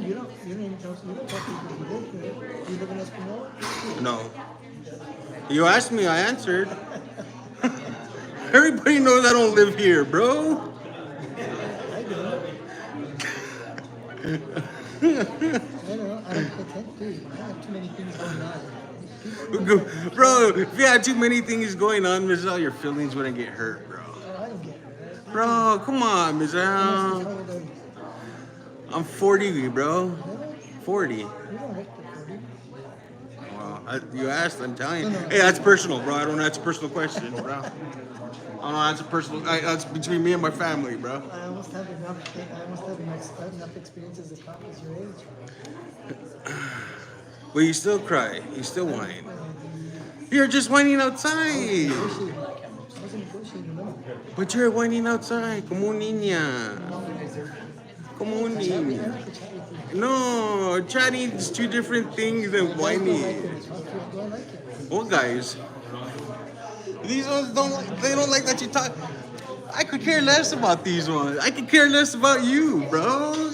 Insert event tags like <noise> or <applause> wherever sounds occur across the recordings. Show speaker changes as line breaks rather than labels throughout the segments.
don't, you don't even talk, you don't talk to people who work there. You live in Espanola?
No. You asked me, I answered. <laughs> Everybody knows I don't live here, bro. <laughs>
I do. I don't know, I don't pretend to. I have too many things going on.
Bro, if you had too many things going on, Michelle, your feelings wouldn't get hurt, bro.
Oh, I don't get it.
Bro, come on,
Honestly,
Michelle.
how old are you?
I'm 40, bro.
Really?
40.
You don't look the 40.
Wow. I, you asked, I'm telling you.
No, no.
Hey, that's personal, bro. I don't That's a personal question, bro. I don't know. That's a personal. I, that's between me and my family, bro.
I almost have enough, I almost have enough, enough experiences as cop as your age.
But you still cry. You still whine. You're just whining outside.
Negotiating. I was negotiating, no.
But you're whining outside. Como un niña.
Long ways. I
Como un
don't
niña.
have to chat with you.
No, chatting is two different things than
Guys don't like
whining.
it. Talk to you, I don't like it.
Old guys. These ones don't. like- They don't like that you talk. I could care less about these ones. I could care less about you, bro.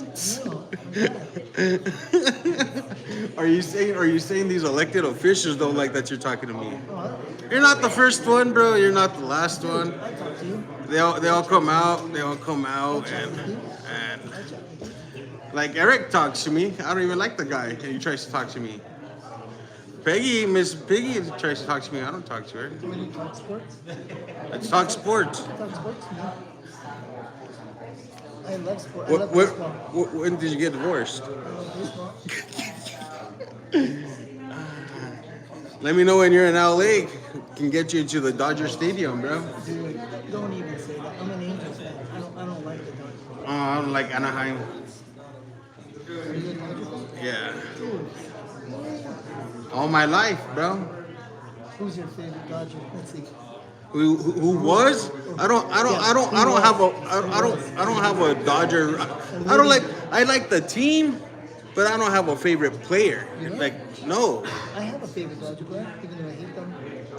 No,
<laughs>
I'm not.
Are you saying? Are you saying these elected officials don't like that you're talking to me?
No, I-
You're not the first one, bro. You're not the last one.
I talk to you.
They all they all come out. They all come out and and like Eric talks to me. I don't even like the guy, and he tries to talk to me. Peggy, Miss Peggy tries to talk to me. I don't talk to her.
When you talk sports,
Let's talk sports.
talk sports, no. I love sport. I
What,
love
what,
baseball.
wh- when did you get divorced?
I love baseball.
Let me know when you're in LA. Can get you to the Dodger Stadium, bro.
Dude, don't even say that. I'm an Angels fan. I don't, I don't like the Dodgers.
Oh, I don't like Anaheim.
Are you an Angels fan?
Yeah.
Dude,
All my life, bro.
who's your favorite Dodger? Let's see.
Who, who who was? I don't I don't I don't I don't have a I, I don't I don't have a Dodger. I don't like I like the team, but I don't have a favorite player. Like no.
I have a favorite Dodger player, even though I hate them.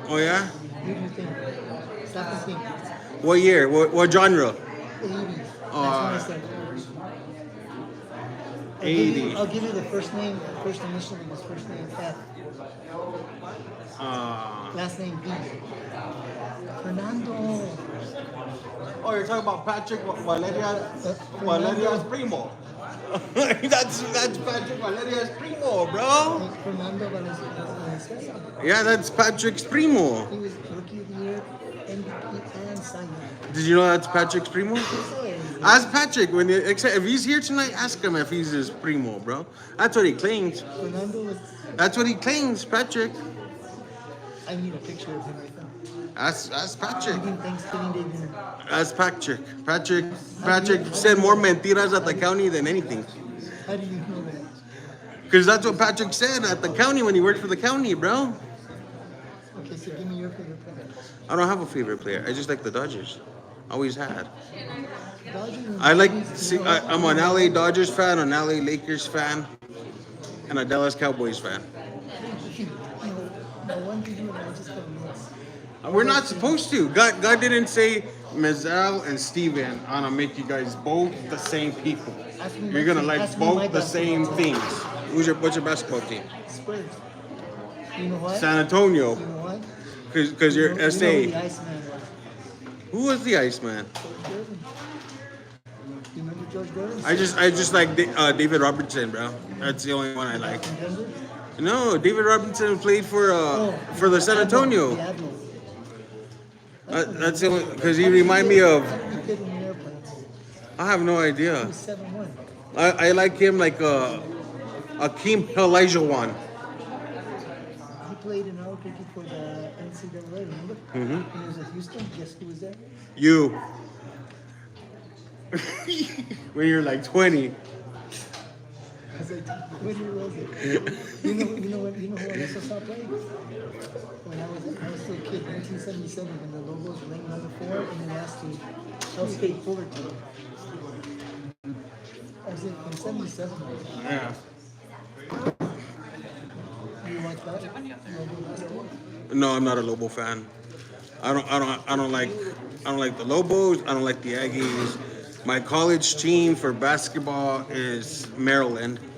Oh yeah.
Who do you think? Stop thinking.
What year? What, what genre?
The 80s. That's what
Uh,
I said. I'll give, you,
80s.
I'll give you the first name, the first initial and his first name F,
Uh,
last name B. Fernando.
oh, you're talking about Patrick Valeria
Valeria's
primo. <laughs> that's that's Patrick Valeria's primo, bro.
Fernando Valenzuela.
Yeah, that's Patrick's primo.
He was Rookie of the Year, MVP, and Cy Young.
Did you know that's Patrick's primo? Ask Patrick when he, except if he's here tonight. Ask him if he's his primo, bro. That's what he claims.
Fernando was.
That's what he claims, Patrick.
I need a picture of him right now.
Ask, ask Patrick.
Even Thanksgiving Day dinner.
Ask Patrick. Patrick. Patrick said more mentiras at the county than anything.
How do you know that?
Cause that's what Patrick said at the county when he worked for the county, bro.
Okay, so give me your favorite player.
I don't have a favorite player. I just like the Dodgers. Always had.
Dodgers.
I like. See, I, I'm an LA Dodgers fan, an LA Lakers fan, and a Dallas Cowboys fan.
<laughs> You know, the one thing you and I just got mixed.
We're not supposed to. God, God didn't say Mazel and Steven, I'm gonna make you guys both the same people.
Ask me
You're
my
gonna
team-
like
ask me my
both the same
basketball team.
things. Who's your what's your basketball team?
Spurs. You know what?
San
you
Antonio,
know what?
cause, cause
you
you're
know, you know who the
SA.
Iceman was.
Who was the Iceman?
George Gordon. You remember George Gordon?
I just I just like Da- uh, David Robertson, bro. That's the only one I like.
In Denver?
No, David Robertson played for uh,
Oh,
for the San
Admiral,
Antonio.
The Admiral.
Uh, that's the only cause he remind me of.
How did he fit in the airplane?
I have no
He
idea.
was 7 1.
I, I like him like uh, Akeem Olajuwon.
He played in Albuquerque for the NCAA, remember? Mm-hmm. When he was at Houston, guess who was there?
You. <laughs> when you're like 20.
I was like, when who was it? You know, you know what? You know who I also saw play? When I was, I was still a kid, 1977, and the logos laying on the floor, and then asked to L State Fullerton. I was like, in 77,
Yeah.
you watch that? Logo basketball?
No, I'm not a Lobo fan. I don't I don't I don't like I don't like the Lobos, I don't like the Aggies. My college team for basketball is Maryland.